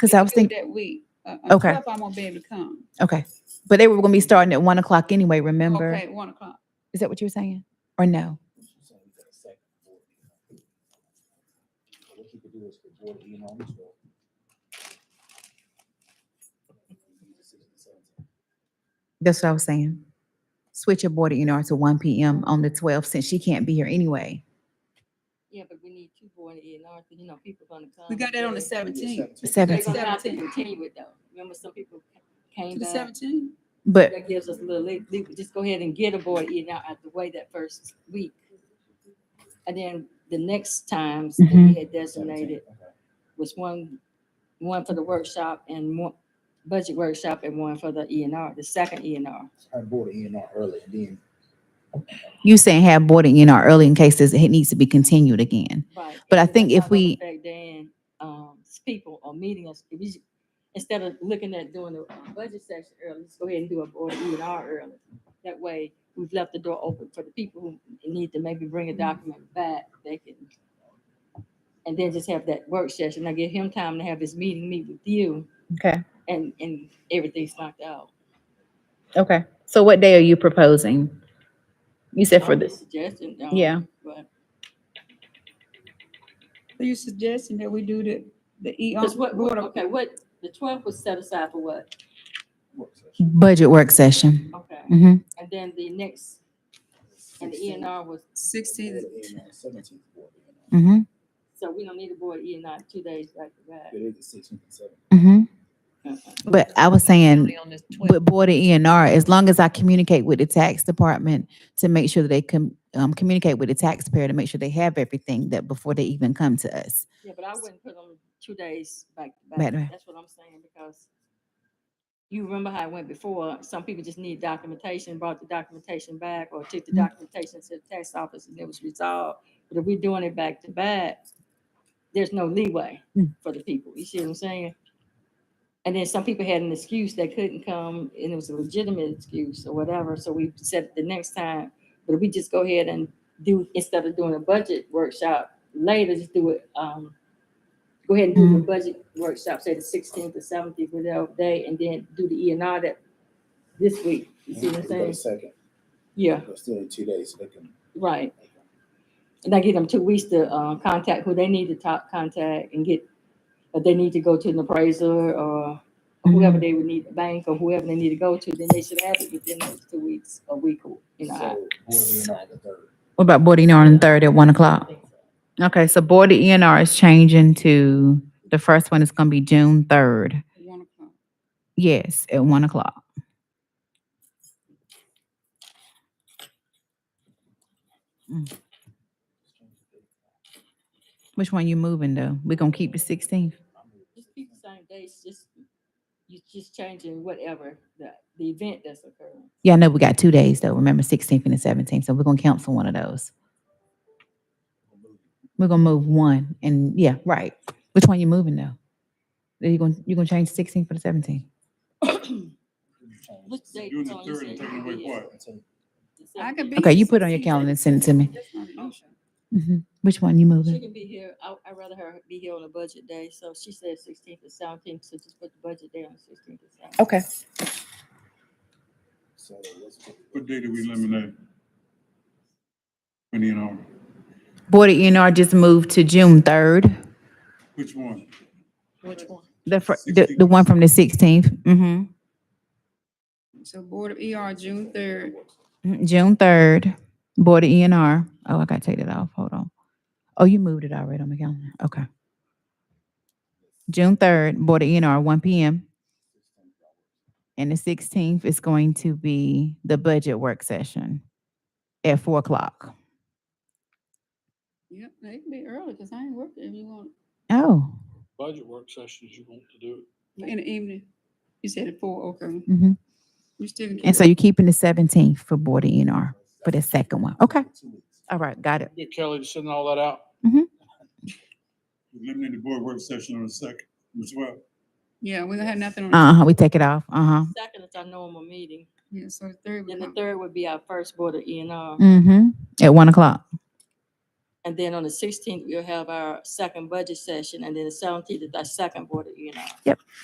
Because It's I was due thinking, That week. Uh, Okay. until I won't be able to come. okay, but they were going to be starting at one o'clock anyway, remember? Okay, one o'clock. Is that what you were saying? Or no? What you could do is put Jordan in on this one. That's what I was saying. Switch your board of E&R to one PM on the twelfth, since she can't be here anyway. Yeah, but we need two board A and R, because you know, people gonna come. We got that on the seventeenth. They're Seventh, gonna have to 17th. continue it though. Remember, some people To came the back. seventeenth? but That gives us a little, leave- leave- just go ahead and get a board A and R out the way that first week. And then the next times that we Mm-hmm. Mhm. had designated was one, one for the workshop and one, budget workshop and one for the E and R, the second E and R. Her board in on early and then you saying have board of E&R early in case this- it needs to be continued again. Right. But I and think if that's not gonna we- affect Then, um, s- people or meeting us, if we, ju- instead of looking at doing the uh, budget section early, let's go ahead and do a board E and R early. That way, we've left the door open for the people who need to maybe bring Mm-hmm. a document back, they can. And then just have that work session, I give him time to have his meeting, meet with you, Okay, and, and everything's knocked out. okay. So what day are you proposing? You said Only Suggestion. um, Yeah. But, Are you suggesting that we do the, the E on? because what, what, okay, what, the twelfth was set aside for what? work session. Budget work session. Okay, hmm and then the next, and the E and R was Sixteenth, Seventeenth board in hmm So we don't need a board E and I two days back to back. It is the sixteenth and seventeenth. hmm Uh-uh. But I was saying, on this with Board of E and R, as long as I communicate with the tax department to make sure that they can, um, communicate with the taxpayer to make sure they have everything that before they even come to us. Yeah, but I wouldn't put on two days back to Back back. to back. That's what I'm saying because you remember how it went before. Some people just need documentation, brought the documentation back or took the Mhm. documentation to the tax office and it was resolved. But if we're doing it back to back, there's no leeway Mm. for the people. You see what I'm saying? And then some people had an excuse they couldn't come and it was a legitimate excuse or whatever. So we said the next time, but if we just go ahead and do, instead of doing a budget workshop later, just do it, um, go ahead and do the budget workshop, say the sixteenth or seventeenth, whatever day, and then do the E and R that this week. You see what I'm saying? Second, Yeah, but still in two days, so they can. right. And I give them two weeks to, uh, contact who they need to talk, contact and get, but they need to go to an appraiser or Mm-hmm. whoever they would need, the bank or whoever they need to go to, then they should have it within those two weeks, a week or, you So know. board I- in on the third. What about Board of E and R on the third at one o'clock? Okay, so Board of E and R is changing to, the first one is gonna be June third. one o'clock. Yes, at one o'clock. Mm. Which one you moving though? We gonna keep the sixteenth? Just keep the same dates, just, you just changing whatever, the, the event that's occurring. Yeah, I know we got two days though. Remember sixteenth and the seventeenth, so we're gonna cancel one of those. We're gonna move one and yeah, right. Which one you moving though? Are you gonna, you gonna change sixteenth for the seventeenth? Which date? Doing the Tony, you third and said taking you away did? what? The I could 17th. be. Okay, the you put it on your 16th. calendar and send it to me. That's not an issue. Mhm. Which one you She moving? can be here, I, I'd rather her be here on a budget day, so she said sixteenth or seventeenth, so just put the budget day on sixteenth or seventeenth. Okay. So let's put- What day did we eliminate? Twenty and all, Board of E and R just moved to June third. which one? Which one? The fir- the, the one 16th. from the 16th Mm-hmm. So Board of ER, June third, Mm, June third, Board of E and R. Oh, I gotta take that off. Hold on. Oh, you moved it already on my calendar. Okay. June third, Board of E and R, one P M. And the sixteenth is going to be the budget work session at four o'clock. yep, it can be early, cause I ain't working if you want, Oh, budget work sessions you want to do. in the evening. You said at four, okay, mhm. you still can. and so you're keeping the seventeenth for Board of E and R for the second one. Okay, Two weeks. all right, got it. Get Kelly to send all that out. Eliminate the board work session on the second as well. Yeah, we don't have nothing on, Uh huh. We take it off. Uh huh. Second is our normal meeting, yeah, so the third. then would the not- third would be our first board of E and R. Mm-hmm. At one o'clock. And then on the sixteenth, we'll have our second budget session, and then the seventeenth is our second board, of E and R.